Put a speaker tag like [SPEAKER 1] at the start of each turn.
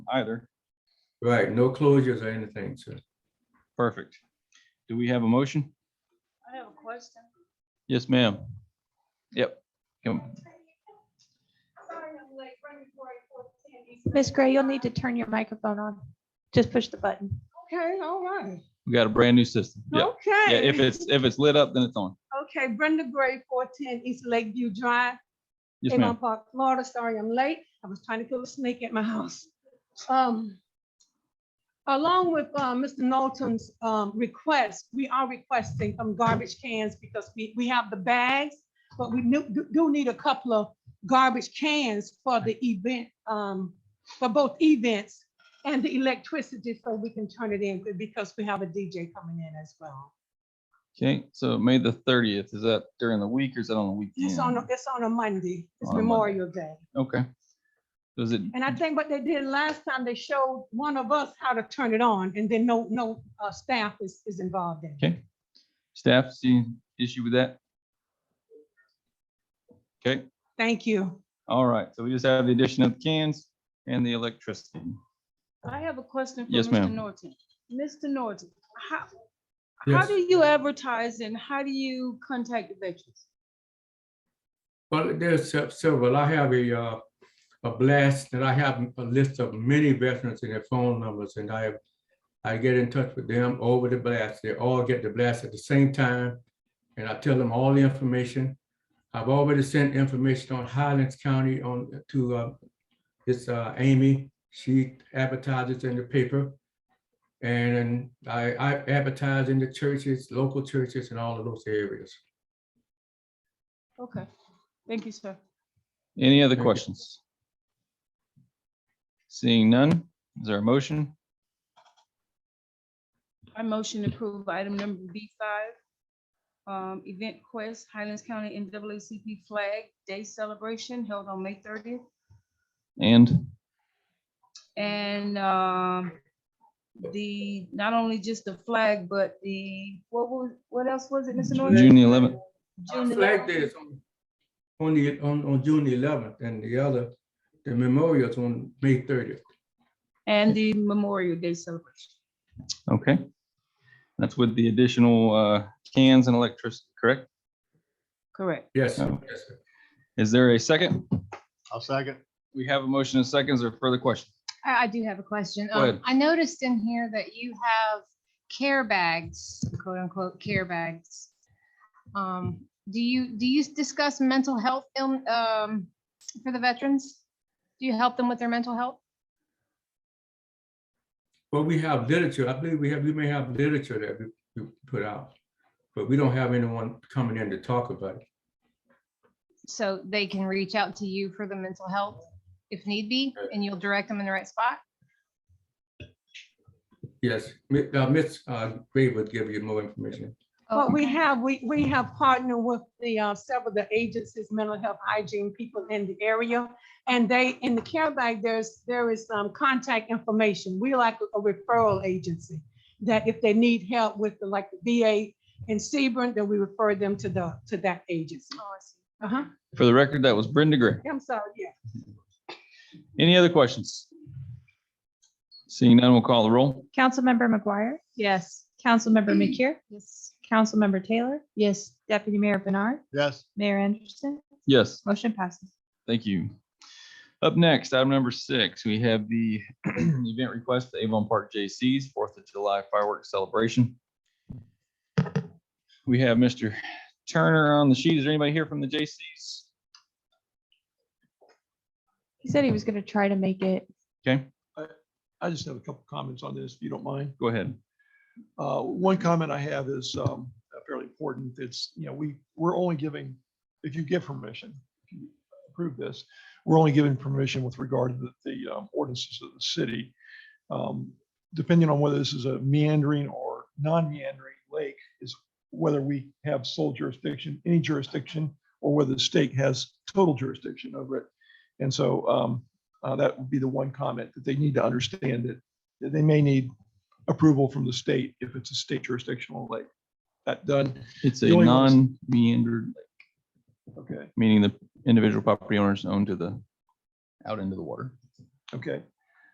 [SPEAKER 1] either.
[SPEAKER 2] Right, no closures or anything, sir.
[SPEAKER 1] Perfect. Do we have a motion?
[SPEAKER 3] I have a question.
[SPEAKER 1] Yes, ma'am. Yep. Come-
[SPEAKER 4] Miss Gray, you'll need to turn your microphone on. Just push the button.
[SPEAKER 3] Okay, all right.
[SPEAKER 1] We got a brand new system. Yeah.
[SPEAKER 3] Okay.
[SPEAKER 1] Yeah, if it's, if it's lit up, then it's on.
[SPEAKER 3] Okay, Brenda Gray, four ten East Lakeview Drive,
[SPEAKER 1] Yes, ma'am.
[SPEAKER 3] Avon Park, Florida. Sorry, I'm late. I was trying to kill a snake at my house. Um, along with, uh, Mr. Knowlton's, um, request, we are requesting some garbage cans because we, we have the bags, but we do, do need a couple of garbage cans for the event, um, for both events and the electricity so we can turn it in because we have a DJ coming in as well.
[SPEAKER 1] Okay, so May the thirtieth, is that during the week or is that on the weekend?
[SPEAKER 3] It's on, a- it's on a Monday. It's
[SPEAKER 1] On a Monday.
[SPEAKER 3] Memorial Day.
[SPEAKER 1] Okay. Does it,
[SPEAKER 3] And I think what they did last time, they showed one of us how to turn it on and then no, no uh, staff is, is involved in it.
[SPEAKER 1] okay. Staff see issue with that? Okay,
[SPEAKER 3] Thank you.
[SPEAKER 1] all right. So we just have the addition of cans and the electricity.
[SPEAKER 5] I have a question for
[SPEAKER 1] Yes,
[SPEAKER 5] Mr.
[SPEAKER 1] ma'am.
[SPEAKER 5] Norton. Mr. Norton, how, how
[SPEAKER 2] Yes.
[SPEAKER 5] do you advertise and how do you contact the veterans?
[SPEAKER 2] Well, there's se- several. I have a, uh, a blast that I have a list of many veterans and their phone numbers and I, I get in touch with them over the blast. They all get the blast at the same time. And I tell them all the information. I've already sent information on Highlands County on to, uh, this, uh, Amy. She advertises in the paper. And I, I advertise in the churches, local churches and all of those areas.
[SPEAKER 5] Okay, thank you, sir.
[SPEAKER 1] Any other
[SPEAKER 2] Very good.
[SPEAKER 1] questions? Seeing none, is there a motion?
[SPEAKER 5] I motion to approve item number B five. Um, Event Quest Highlands County NAACP Flag Day Celebration held on May thirtieth.
[SPEAKER 1] And,
[SPEAKER 5] And, um, the, not only just the flag, but the, what was, what else was it, Mr. Norton?
[SPEAKER 1] June the 11th.
[SPEAKER 5] June the
[SPEAKER 2] Flag
[SPEAKER 5] 11th?
[SPEAKER 2] Day is on, on the, on, on June eleventh, and the other, the memorial's on May thirtieth.
[SPEAKER 5] And the Memorial Day Celebration.
[SPEAKER 1] okay. That's with the additional uh, cans and electricity, correct?
[SPEAKER 5] Correct.
[SPEAKER 2] Yes,
[SPEAKER 1] Oh.
[SPEAKER 2] yes, sir.
[SPEAKER 1] Is there a second?
[SPEAKER 6] I'll second.
[SPEAKER 1] We have a motion and seconds or further question?
[SPEAKER 7] I, I do have a question.
[SPEAKER 1] Go ahead.
[SPEAKER 7] Um, I noticed in here that you have care bags, quote unquote, care bags. Um, do you, do you discuss mental health, ill- um, for the veterans? Do you help them with their mental health?
[SPEAKER 2] Well, we have literature, I believe we have, we may have literature that we, we put out, but we don't have anyone coming in to talk about it.
[SPEAKER 7] So they can reach out to you for the mental health if need be, and you'll direct them in the right spot?
[SPEAKER 2] Yes, Mi- uh, Ms. uh, Gray would give you more information.
[SPEAKER 3] But we
[SPEAKER 7] Okay.
[SPEAKER 3] have, we, we have partnered with the, uh, several of the agencies, mental health hygiene people in the area. And they, in the care bag, there's, there is, um, contact information. We like a referral agency. That if they need help with the, like, the VA in Sebring, then we refer them to the, to that agency.
[SPEAKER 7] Oh, I see.
[SPEAKER 3] Uh-huh.
[SPEAKER 1] For the record, that was Brenda Gray.
[SPEAKER 3] I'm sorry, yeah.
[SPEAKER 1] Any other questions? Seeing none, we'll call the roll.
[SPEAKER 4] Councilmember McGuire,
[SPEAKER 5] Yes.
[SPEAKER 4] Councilmember McCure,
[SPEAKER 7] Yes.
[SPEAKER 4] Councilmember Taylor,
[SPEAKER 5] Yes.
[SPEAKER 4] Deputy Mayor Bernard,
[SPEAKER 6] Yes,
[SPEAKER 4] Mayor Anderson,
[SPEAKER 1] Yes,
[SPEAKER 4] motion passes.
[SPEAKER 1] thank you. Up next, item number six, we have the event request, for Avon Park J.C.'s Fourth of July fireworks celebration. We have Mr. Turner on the sheet. Is there anybody here from the J.C.'s?
[SPEAKER 4] He said he was going to try to make it.
[SPEAKER 1] Okay,
[SPEAKER 8] I just have a couple comments on this, if you don't mind.
[SPEAKER 1] go ahead.
[SPEAKER 8] Uh, One comment I have is um, fairly important. It's, you know, we, we're only giving, if you give permission, if you approve this, we're only giving permission with regard to the the, um, ordinances of the city. Um, Depending on whether this is a meandering or non-meandering lake is whether we have sole jurisdiction, any jurisdiction, or whether the state has total jurisdiction over it. And so um, uh, that would be the one comment that they need to understand that that they may need approval from the state if it's a state jurisdictional lake. That done,
[SPEAKER 1] It's a
[SPEAKER 8] The only ones-
[SPEAKER 1] non-meandered,
[SPEAKER 8] okay,
[SPEAKER 1] meaning the individual property owners own to the, out into the water.
[SPEAKER 8] okay.